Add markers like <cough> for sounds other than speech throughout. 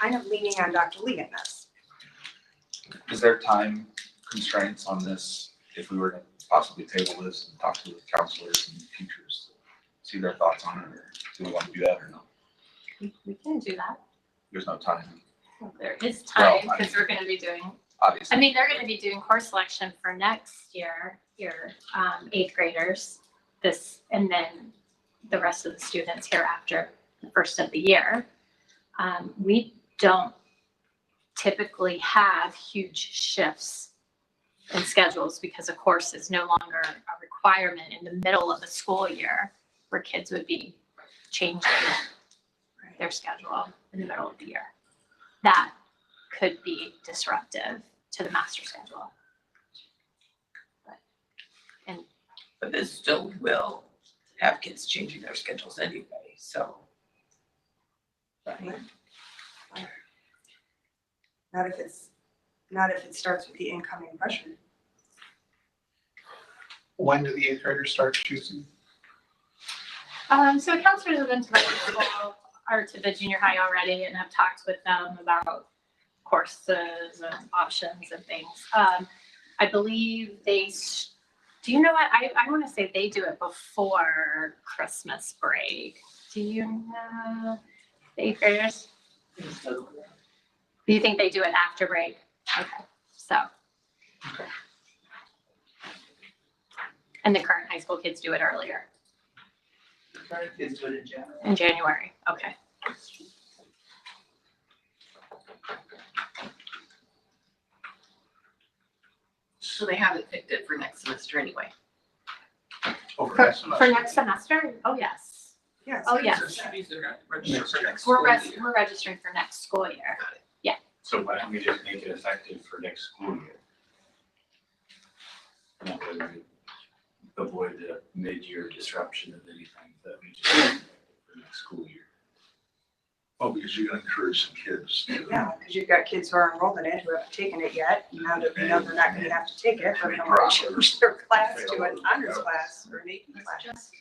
kind of leaning on Dr. Lee in this. Is there time constraints on this if we were to possibly table this and talk to the counselors and teachers? See their thoughts on it, or do we want to do that or no? We, we can do that. There's no time, There is Well, time I- because we're gonna be doing, I obviously. mean, they're gonna be doing course selection for next year, your um eighth graders. This, and then the rest of the students hereafter, the first of the year. Um, we don't typically have huge shifts in schedules because a course is no longer a requirement in the middle of the school year where kids would be changing their schedule in the middle of the year. That could be disruptive to the master schedule. But this still will have kids changing their schedules anyway, so. Right. Not if it's, not if it starts with the incoming pressure. When do the eighth graders start choosing? Um, so counselors have been to the school or to the junior high already and have talked with them about courses and options and things. Um, I believe they, s- do you know what? I, I want to say they do it before Christmas break. Do you know? the Eighth graders? Do you think they do it after break? Okay, so. And the current high school kids do it earlier, Current kids would in general. in January, okay. So they haven't picked it for next semester anyway. Over For, next semester? for next semester? Oh, yes. Yes. Oh, yes. So That means they're not registered for next We're school res- year. we're registering for next school year. So why don't we just make it effective for next school year? And that way we avoid the mid-year disruption of anything that we just for next school year. Oh, because you're gonna encourage some kids. to- Yeah, because you've got kids who are enrolled in it who haven't taken it yet. and Now that we know they're not gonna have to take it, they're gonna want to <laughs> change their class to an honors class or an AP class.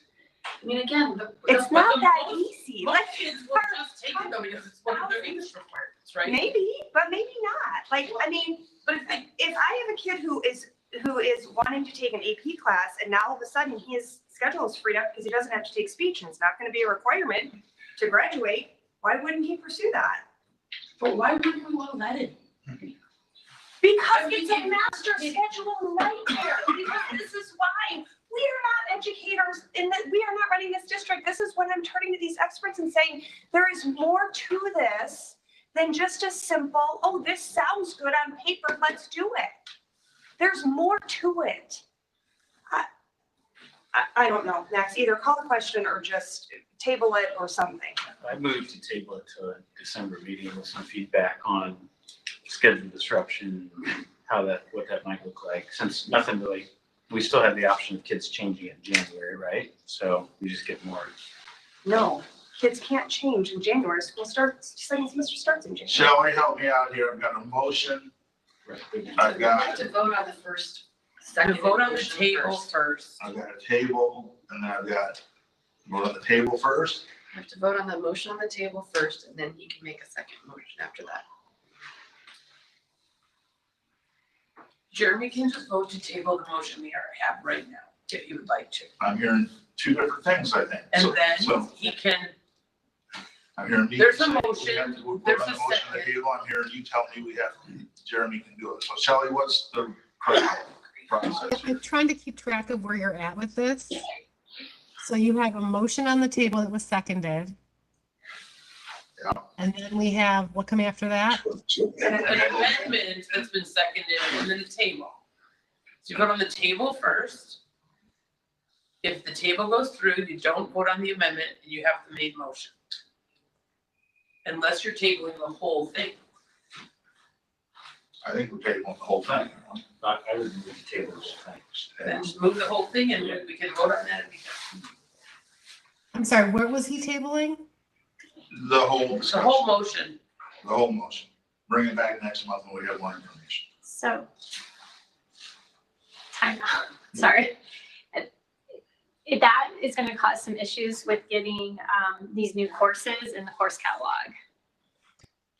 I mean, again, the. It's the- not the that most- easy. Most Like, kids will just take it though because it's one of their English requirements, right? maybe, but maybe not. Like, I mean, But if they, if I have a kid who is, who is wanting to take an AP class and now all of a sudden his schedule is freed up because he doesn't have to take speech and it's not gonna be a requirement to graduate, why wouldn't he pursue that? but why wouldn't we want that in? Because I mean, it's a you- master you- schedule nightmare, because this is why we are not educators in that we are not running this district. This is when I'm turning to these experts and saying, there is more to this than just a simple, oh, this sounds good on paper, let's do it. There's more to it. I, I, I don't know, Max, either call the question or just table it or something. I moved to table it to a December meeting with some feedback on schedule disruption, how that, what that might look like, since nothing really, we still have the option of kids changing it in January, right? So we just get more. No, kids can't change in January, school starts, second semester starts in January. Shall we help me out here? I've got a motion. I've got, to vote on the first, To second. vote on the motion table first. first. I've got a table and then I've got, go to the table first. We Have to vote on the motion on the table first, and then he can make a second motion after that. Jeremy can just vote to table the motion we already have right now, if he would like to. I'm hearing two different things, I think. And So- then So he can, I'm hearing me. There's a say we motion, have to- we're there's putting a motion on the second. table. I'm hearing you tell me we have, Jeremy can do it. So Shelley, what's the correct process I'm here? trying to keep track of where you're at with this. So you have a motion on the table that was seconded. Yeah. And then we have, what come after that? an And then we'll- amendment that's been seconded and then the table. So you vote on the table first. If the table goes through, you don't vote on the amendment and you have the main motion. Unless you're tabling the whole thing. I think we're tabling the whole thing. I, I would move to table those things. Then just move the whole thing and we can vote on that if we can. I'm sorry, where was he tabling? The whole The discussion, whole motion, the whole motion. Bring it back next month when we have more information. So. Time out, <laughs> sorry. It- That is gonna cause some issues with getting um these new courses in the course catalog.